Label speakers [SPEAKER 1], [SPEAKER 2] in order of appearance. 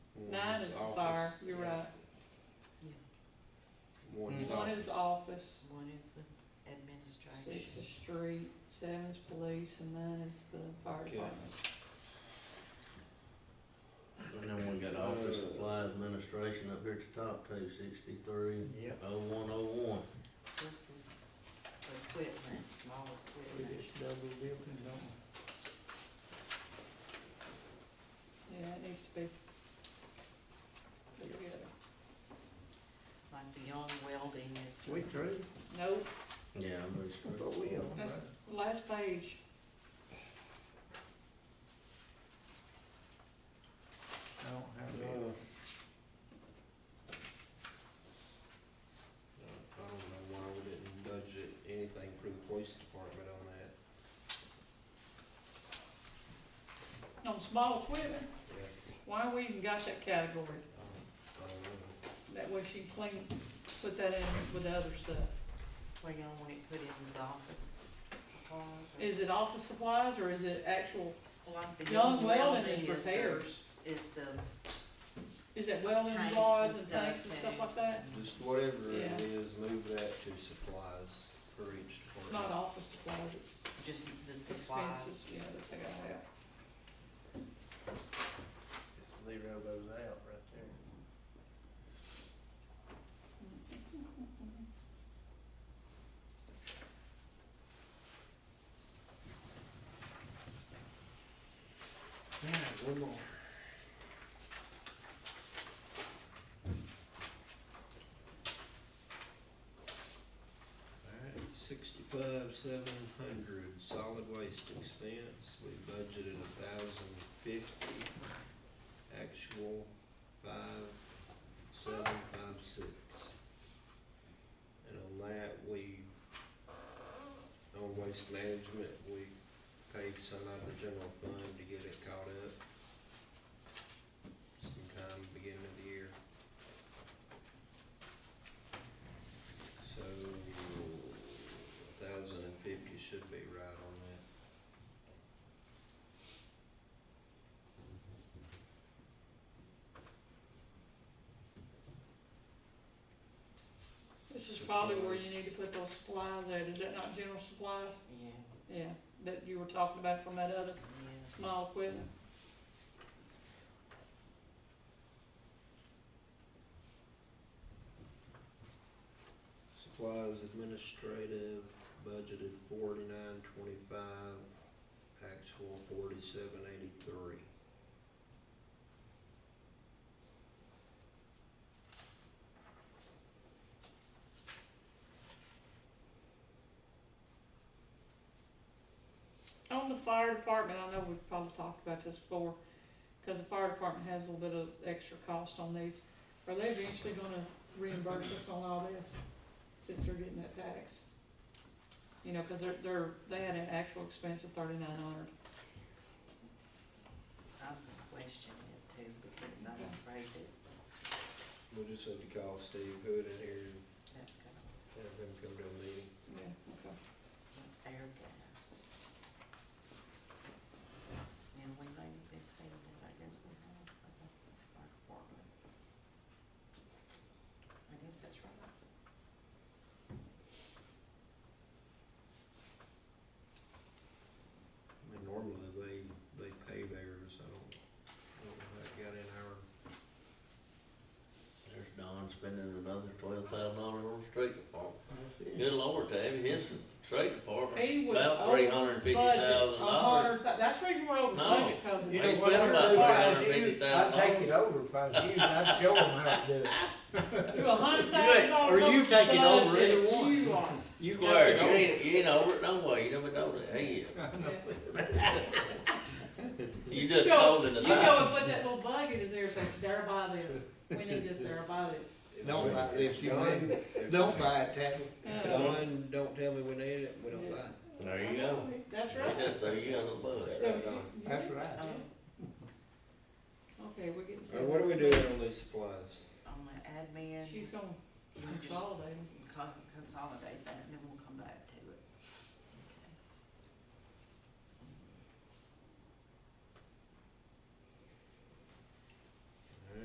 [SPEAKER 1] is office,
[SPEAKER 2] One is the administration.
[SPEAKER 1] six is street, seven is police, and nine is the fire
[SPEAKER 3] Okay.
[SPEAKER 1] department.
[SPEAKER 4] And then we got office supply administration up here at the top, two sixty-three,
[SPEAKER 3] Yep.
[SPEAKER 4] oh one oh one.
[SPEAKER 2] This is equipment, small
[SPEAKER 3] We
[SPEAKER 2] equipment.
[SPEAKER 3] just double dipping, don't
[SPEAKER 1] Yeah, it needs to be put together.
[SPEAKER 2] Like the young welding is.
[SPEAKER 3] we? We through?
[SPEAKER 1] Nope,
[SPEAKER 4] Yeah, I'm pretty
[SPEAKER 3] I
[SPEAKER 4] sure.
[SPEAKER 3] thought we on, right?
[SPEAKER 1] That's- last page,
[SPEAKER 3] I don't have
[SPEAKER 4] Uh,
[SPEAKER 3] that.
[SPEAKER 5] I don't know why we didn't budget anything for the police department on that.
[SPEAKER 1] on small equipment,
[SPEAKER 5] Yeah,
[SPEAKER 1] why we even got that category?
[SPEAKER 5] I don't- I don't know.
[SPEAKER 1] That way she clean, put that in with the other stuff.
[SPEAKER 2] Well, you don't want it put in the office supplies. or-
[SPEAKER 1] Is it office supplies or is it actual
[SPEAKER 2] Like the
[SPEAKER 1] young welding
[SPEAKER 2] is
[SPEAKER 1] and
[SPEAKER 2] the-
[SPEAKER 1] repairs?
[SPEAKER 2] Is the.
[SPEAKER 1] Is it welding
[SPEAKER 2] tanks
[SPEAKER 1] rods
[SPEAKER 2] and
[SPEAKER 1] and
[SPEAKER 2] stuff
[SPEAKER 1] tanks and stuff
[SPEAKER 2] too.
[SPEAKER 1] like that?
[SPEAKER 5] Just whatever
[SPEAKER 1] Yeah.
[SPEAKER 5] it is, move that to supplies for each
[SPEAKER 1] It's not
[SPEAKER 5] department.
[SPEAKER 1] office supplies, it's
[SPEAKER 2] Just the supplies.
[SPEAKER 1] expenses, yeah, that they gotta have.
[SPEAKER 5] Just zero those out right there.
[SPEAKER 3] Yeah, one more.
[SPEAKER 5] Alright, sixty-five, seven hundred, solid waste expense, we budgeted a thousand fifty, actual five, seven, five, six. And on that, we, on waste management, we paid some out of the general fund to get it caught up sometime beginning of the year. So, thousand and fifty should be right on that.
[SPEAKER 1] This is probably where you
[SPEAKER 5] Supplies.
[SPEAKER 1] need to put those supplies at, is that not general supplies?
[SPEAKER 2] Yeah,
[SPEAKER 1] Yeah, that you were talking about from that other
[SPEAKER 2] yeah.
[SPEAKER 1] small equipment.
[SPEAKER 5] Supplies administrative, budgeted forty-nine twenty-five, actual forty-seven eighty-three.
[SPEAKER 1] On the fire department, I know we've probably talked about this before, cause the fire department has a little bit of extra cost on these. Are they eventually gonna reimburse us on all this, since they're getting that tax? You know, cause they're, they're, they had an actual expense of thirty-nine hundred.
[SPEAKER 2] I'm questioning it too, because I'm
[SPEAKER 1] Okay.
[SPEAKER 2] afraid that
[SPEAKER 5] We'll just have to call Steve Hood in here and
[SPEAKER 2] that's gonna,
[SPEAKER 5] have him come to a meeting.
[SPEAKER 1] Yeah, okay.
[SPEAKER 2] that's air gas. And we may have been paying it, I guess we have, but our department. I guess that's right.
[SPEAKER 5] I mean, normally they, they pay theirs, I don't, I don't know how it got in our,
[SPEAKER 4] There's Don spending another twelve thousand dollars on the street department.
[SPEAKER 3] That's it.
[SPEAKER 4] Good lord, Tabby, his street
[SPEAKER 1] He
[SPEAKER 4] department's
[SPEAKER 1] was
[SPEAKER 4] about
[SPEAKER 1] over
[SPEAKER 4] three hundred and fifty
[SPEAKER 1] Budget,
[SPEAKER 4] thousand
[SPEAKER 1] a
[SPEAKER 4] dollars.
[SPEAKER 1] hundred, thou- that's the reason we're over
[SPEAKER 4] No.
[SPEAKER 1] budget, cause of
[SPEAKER 3] You
[SPEAKER 4] They
[SPEAKER 3] know
[SPEAKER 1] that.
[SPEAKER 3] what
[SPEAKER 4] spent
[SPEAKER 3] I'd
[SPEAKER 4] about
[SPEAKER 3] do if I was
[SPEAKER 4] $350,000.
[SPEAKER 3] you? I'd take it over if I was you, and I'd show them how to do it.
[SPEAKER 1] Do a hundred
[SPEAKER 4] You ain't-
[SPEAKER 1] thousand dollars.
[SPEAKER 4] or you taking over
[SPEAKER 1] budget,
[SPEAKER 4] either one.
[SPEAKER 1] You are,
[SPEAKER 4] You
[SPEAKER 3] got
[SPEAKER 4] swear,
[SPEAKER 3] it
[SPEAKER 4] you
[SPEAKER 3] over.
[SPEAKER 4] ain't, you ain't over it no way, you never told it, he is.
[SPEAKER 1] yeah.
[SPEAKER 4] You just
[SPEAKER 1] go-
[SPEAKER 4] told it the
[SPEAKER 1] You go
[SPEAKER 4] time.
[SPEAKER 1] and put that little bug in his ear, and say, there by this, we need this, there by this.
[SPEAKER 3] Don't buy it if you
[SPEAKER 5] Don-
[SPEAKER 3] win.
[SPEAKER 5] if
[SPEAKER 3] Don't buy it, Tabby.
[SPEAKER 1] Uh,
[SPEAKER 5] Don, don't tell me we need it, we don't buy it.
[SPEAKER 4] There you go.
[SPEAKER 1] That's right.
[SPEAKER 4] Just throw you under the bus.
[SPEAKER 1] So
[SPEAKER 5] Right
[SPEAKER 1] you-
[SPEAKER 5] on.
[SPEAKER 1] you-
[SPEAKER 3] That's right.
[SPEAKER 2] Um,
[SPEAKER 1] Okay, we're getting.
[SPEAKER 5] Alright, what are we doing on these supplies?
[SPEAKER 2] On the admin,
[SPEAKER 1] She's gonna
[SPEAKER 2] you just
[SPEAKER 1] consolidate.
[SPEAKER 2] con- consolidate that, and then we'll come back